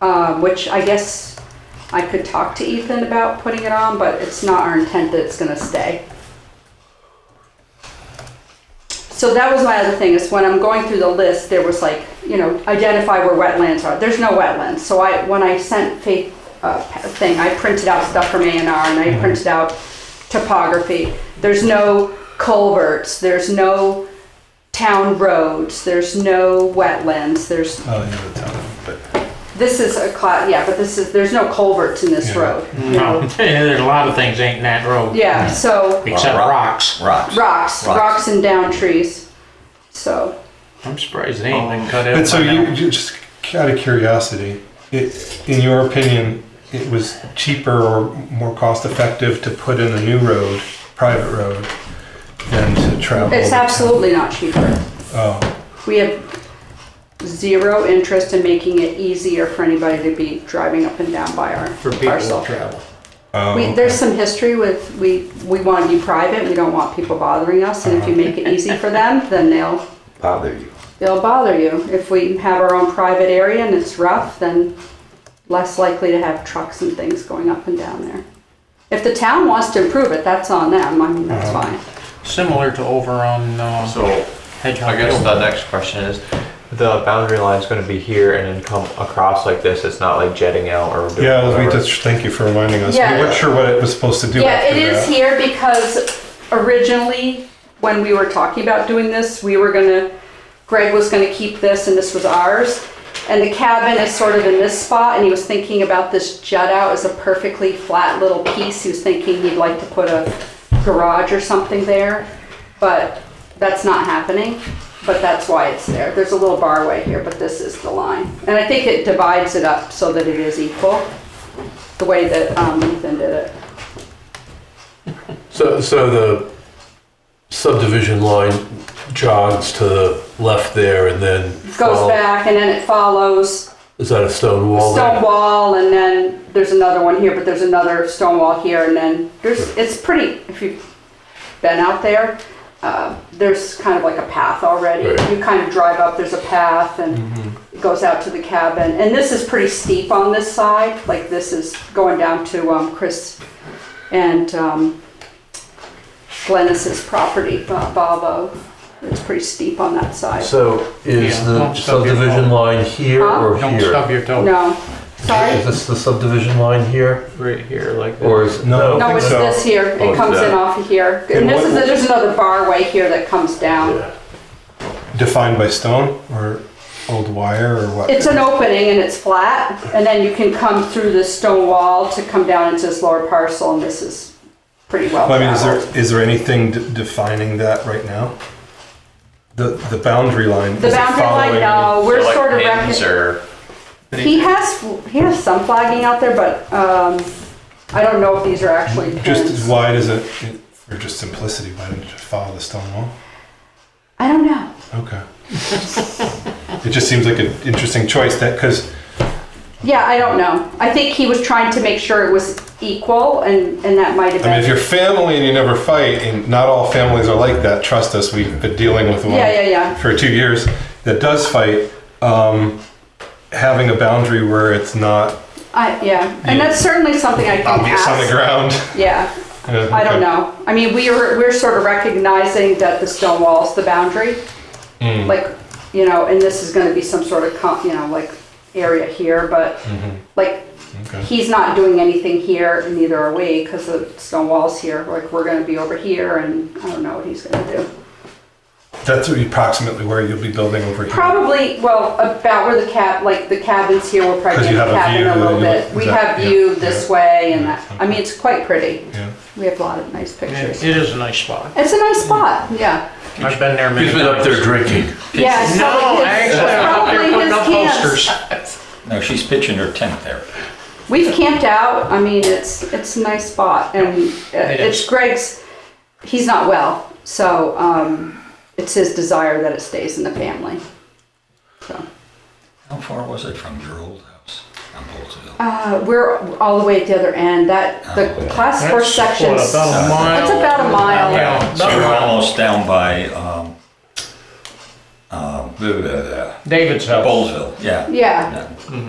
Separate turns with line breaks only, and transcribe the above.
um, which I guess I could talk to Ethan about putting it on, but it's not our intent that it's gonna stay. So that was my other thing, is when I'm going through the list, there was like, you know, identify where wetlands are. There's no wetlands, so I, when I sent Faith a thing, I printed out stuff from A and R, and I printed out topography. There's no culverts, there's no town roads, there's no wetlands, there's,
Oh, you know the town, but
this is a cla, yeah, but this is, there's no culverts in this
Yeah.
road.
No, there's a lot of things ain't in that road.
Yeah, so
Except
Rock.
rocks.
Rocks.
rocks,
Rocks.
rocks and down trees. So,
I'm surprised they ain't
Oh.
been cut out.
but so
by now.
you you just out of curiosity, it in your opinion, it was cheaper or more cost effective to put in a new road, private road, than to travel.
it's
the town.
absolutely not cheaper.
Oh,
We have zero interest in making it easier for anybody to be driving up and down by our
For people to
parcel.
travel.
oh,
We, there's some history with, we, we want to be private, we don't want people bothering us, and if you make it
Uh-huh.
easy for them, then they'll,
Bother you.
they'll bother you. If we have our own private area and it's rough, then less likely to have trucks and things going up and down there. If the town wants to improve it, that's on them, I mean, that's
Uh-huh.
fine.
Similar to over on uh,
So I
Hedgehog
guess the
Hill.
next question is, the boundary line's gonna be here and then come across like this, it's not like jetting out or doing
Yeah, we
whatever.
just thank you for reminding us.
Yeah.
We weren't sure what it was supposed to do.
Yeah, it
after
is
that.
here because originally, when we were talking about doing this, we were gonna, Greg was gonna keep this and this was ours. And the cabin is sort of in this spot and he was thinking about this jut out as a perfectly flat little piece. He was thinking he'd like to put a garage or something there, but that's not happening. But that's why it's there. There's a little barway here, but this is the line. And I think it divides it up so that it is equal, the way that um, Ethan did it.
So, so the subdivision line jogs to the left there and then
goes
follow-
back and then it follows
Is that a stone wall? there?
stone wall and then there's another one here but there's another stone wall here and then there's it's pretty if you've been out there uh, there's kind of like a path already
Right.
you kind of drive up there's a path and
Mm-hmm.
it goes out to the cabin and this is pretty steep on this side like this is going down to um, chris and um, glennis's property Bo- Bobo. it's pretty steep on that side
So is
Yeah,
the
don't stub your
subdivision
toe.
line here
Huh?
or
Don't
here?
stub your toe.
no sorry
Is this the subdivision line here,
Right here, like
or
this.
is
No. I
No,
think
it's
so.
this here.
Oh,
It
it's
comes in
that.
off of here. And
And
this
what-
is, there's another bar way here that comes down.
Yeah.
Defined by stone or old wire or what?
It's an opening and it's flat, and then you can come through this stone wall to come down into this lower parcel, and this is pretty well
Well, I mean, is
traveled.
there, is there anything de- defining that right now? The, the boundary line?
The
is it
boundary line,
following-
no, we're
So, like,
sort of
pins
reckoning.
or-
He has, he has some flagging out there, but, um, I don't know if these are actually
Just as
pins.
wide as it, it- for just simplicity, why didn't you just follow the stone wall?
I don't know.
Okay. It just seems like an interesting choice that, because,
Yeah, I don't know. I think he was trying to make sure it was equal, and, and that might have
I mean, if
been.
you're family and you never fight, and not all families are like that, trust us, we've been dealing with one.
Yeah, yeah, yeah.
for two years that does fight, um, having a boundary where it's not
I, yeah, and
Yeah.
that's certainly something I can
obvious
ask.
on the ground.
Yeah,
Yeah,
I don't
okay.
know. I mean, we are we're sort of recognizing that the stone wall's the boundary,
Mm-hmm. Mm.
like you know, and this is going to be some sort of com- you know like area here, but like
Mm-hmm. Okay.
he's not doing anything here, and neither are we, because the stone wall's here. Like we're going to be over here, and I don't know what he's going to do.
That's approximately where you'll be building over here.
Probably, well, about where the cab, like the cabins here, we'll probably
'Cause
get
you
the
have a
cabin
view
a little
and you
bit.
look-
We
is that-
have
yeah,
view this way and that, I
okay.
mean, it's quite pretty.
Yeah.
We have a lot of nice pictures.
It it is a nice spot.
It's a nice spot, yeah.
I've been there many
He's been up there drinking.
Yeah, it's
No,
probably his-
actually, I'm up there
probably
putting
his
up
cans.
posters.
No, she's pitching her tent there.
We've camped out, I mean, it's, it's a nice spot and uh,
It
it's
is.
Greg's, he's not well, so, um, it's his desire that it stays in the family. So,
How far was it from your old house on Boltonville?
Uh, we're all the way at the other end, that, the class four
Oh, That's, what,
section's.
about a mile.
It's about a mile.
Yeah,
So
about a
you're
mile.
almost down by, um, uh, blah, blah, blah,
David's house.
Boltonville, yeah.
Yeah.
Yeah.